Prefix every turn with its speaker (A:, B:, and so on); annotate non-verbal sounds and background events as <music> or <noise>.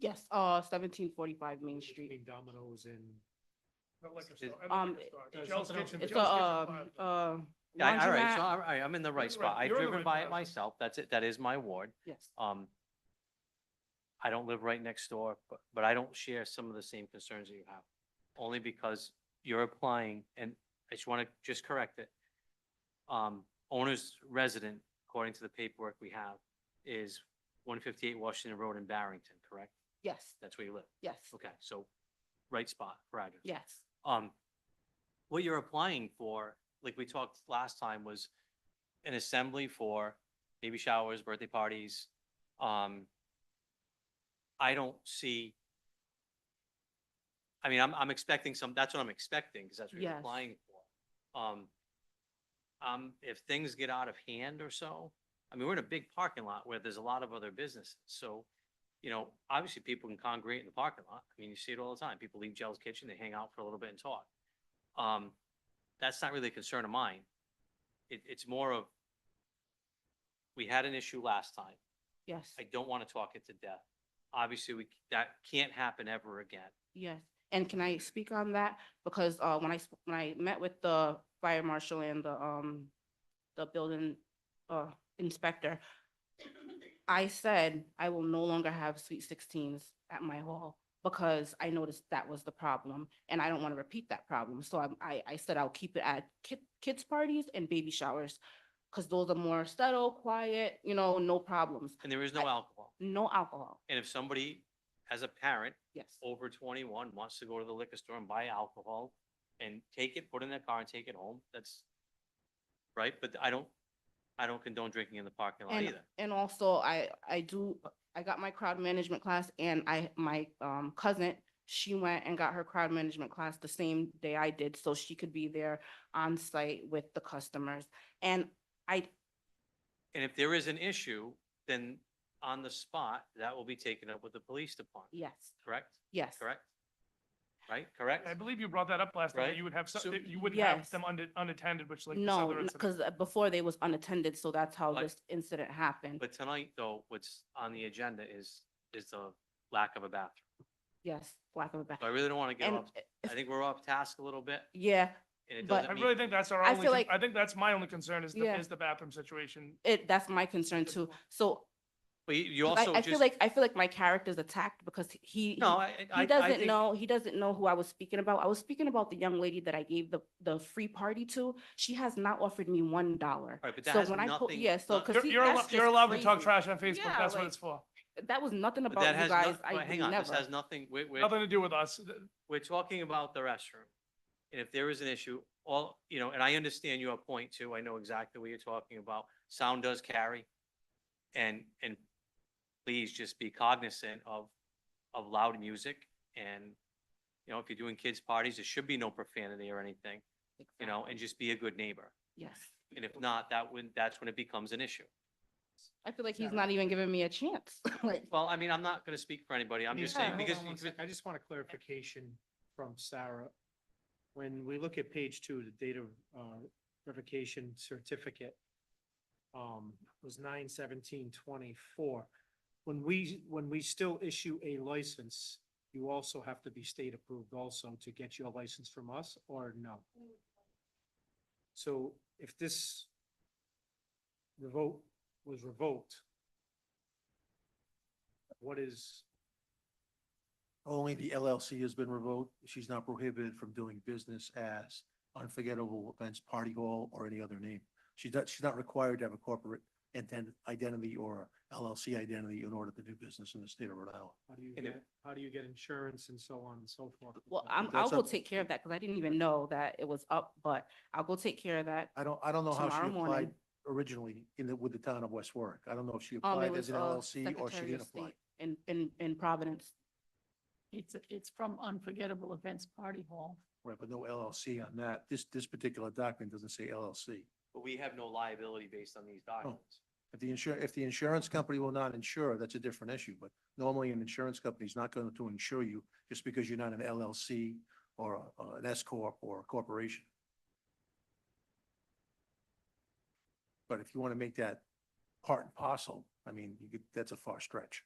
A: Yes, uh, seventeen forty-five Main Street.
B: Between Domino's and.
C: The liquor store, at
A: Um,
C: liquor store.
B: it's
C: Joe's
B: something else.
C: Kitchen-
A: It's a,
C: Joe's Kitchen
A: uh,
C: Plaza.
A: uh.
D: Yeah, I- all right,
A: laundromat.
D: so all right, I'm in the
C: You're
D: right
C: the
D: spot.
C: right-
D: I've
C: you're on the
D: driven
C: right
D: by it
C: path.
D: myself. That's it. That is my ward.
A: Yes,
D: Um, I don't live right next door, but, but I don't share some of the same concerns that you have. Only because you're applying, and I just want to just correct it. Um, owner's resident, according to the paperwork we have, is one fifty-eight Washington Road in Barrington, correct?
A: yes,
D: That's where you live.
A: yes,
D: Okay, so right spot, right.
A: yes,
D: Um, what you're applying for, like we talked last time, was an assembly for baby showers, birthday parties. Um, I don't see. I mean, I'm, I'm expecting some, that's what I'm expecting, because that's what you're
A: Yes.
D: applying for. Um, um, if things get out of hand or so, I mean, we're in a big parking lot where there's a lot of other businesses, so, you know, obviously people can congregate in the parking lot. I mean, you see it all the time. People leave Jell's Kitchen, they hang out for a little bit and talk. Um, that's not really a concern of mine. It, it's more of, we had an issue last time.
A: yes,
D: I don't want to talk it to death. Obviously, we, that can't happen ever again.
A: yes. And can I speak on that? Because, uh, when I, sp- when I met with the fire marshal and the, um, the building, uh, inspector, I said I will no longer have sweet sixteens at my hall because I noticed that was the problem and I don't want to repeat that problem. So I'm- I, I said I'll keep it at kid, kids parties and baby showers. Cause those are more subtle, quiet, you know, no problems,
D: And there is no alcohol.
A: no alcohol.
D: And if somebody, as a parent
A: Yes,
D: over twenty-one, wants to go to the liquor store and buy alcohol and take it, put it in their car and take it home, that's, right? But I don't, I don't condone drinking in the parking lot
A: And-
D: either.
A: and also I, I do, I got my crowd management class and I, my, um, cousin, she went and got her crowd management class the same day I did, so she could be there on site with the customers. And I,
D: And if there is an issue, then on the spot, that will be taken up with the police department,
A: yes,
D: correct?
A: yes.
D: Correct? Right, correct?
C: I believe you brought that up last time, that
D: Right?
C: you would have, some-
D: So-
C: that you wouldn't have
A: uh, Yes.
C: them unde- unattended, which like. this
A: No,
C: other incident.
A: because before they was unattended, so that's how
D: But-
A: this incident happened.
D: But tonight, though, what's on the agenda is, is the lack of a bathroom.
A: Yes, lack of a back.
D: So I really don't want to get
A: And,
D: off,
A: uh,
D: I think we're off task a little bit,
A: yeah,
D: and it
A: But-
D: doesn't
C: I
D: mean.
C: really think that's our
A: I
C: only,
A: feel
C: con-
A: like-
C: I think that's my only concern is the,
A: Yeah.
C: is the bathroom situation.
A: it, that's my concern too. So
D: But you- you
A: I,
D: also
A: I
D: just.
A: feel like, I feel like my character's attacked because he- he.
D: No, I, I.
A: He
D: I
A: doesn't
D: think-
A: know, he doesn't know who I was speaking about. I was speaking about the young lady that I gave the, the free party to. She has not offered me one dollar.
D: All right, but that
A: So
D: has
A: when I po-
D: nothing-
A: Yeah, so,
D: not-
A: cause
C: You're,
A: he-
C: you're
A: that's
C: allo- you're
A: just
C: allowed to talk
A: crazy.
C: trash on Facebook,
A: Yeah,
C: that's what
A: like-
C: it's for.
A: That was nothing
D: But that
A: about you
D: has no-
A: guys.
D: but
A: I
D: Hang
A: would
D: on, this
A: never.
D: has nothing, we're, we're,
C: Nothing to do with us.
D: we're talking about the restroom. And if there is an issue, all, you know, and I understand your point too. I know exactly what you're talking about. Sound does carry. And, and please just be cognizant of, of loud music and, you know, if you're doing kids' parties, there should be no profanity or anything, you know, and just be a good neighbor.
A: Yes.
D: And if not, that would, that's when it becomes an issue.
A: I feel like he's not even giving me a chance. <laughs> Like,
D: Well, I mean, I'm not going to speak for anybody. I'm just saying,
A: Yeah.
D: because.
B: Hold on one
D: because-
B: sec. I just want a clarification from Sarah. When we look at page two, the data uh, revocation certificate um, was nine seventeen twenty-four. When we, when we still issue a license, you also have to be state approved also to get your license from us or no? So if this revoke was revoked, what is,
E: Only the LLC has been revoked. She's not prohibited from doing business as Unforgettable Events Party Hall or any other name. She's not, she's not required to have a corporate intent, identity or LLC identity in order to do business in the state of Rhode Island.
B: How do you
D: And it-
B: get, how do you get insurance and so on and so forth?
A: well, I'm, I'll
E: That's
A: go
E: up-
A: take care of that because I didn't even know that it was up, but I'll go take care of that.
E: I don't, I don't know how
A: Tomorrow
E: she applied
A: morning.
E: originally in the, with the town of West Warwick. I don't know if
A: Um,
E: she
A: it
E: applied
A: was,
E: as an
A: uh,
E: LLC or she
A: Secretary
E: didn't
A: of
E: apply.
A: State in, in, in Providence.
F: It's, it's from Unforgettable Events Party Hall.
E: Right, but no LLC on that. This, this particular document doesn't say LLC.
D: But we have no liability based on these documents.
E: If the insur, if the insurance company will not insure, that's a different issue, but normally an insurance company is not going to insure you just because you're not an LLC or a- a- an S corp or a corporation. But if you want to make that part and parcel, I mean, you could, that's a far stretch.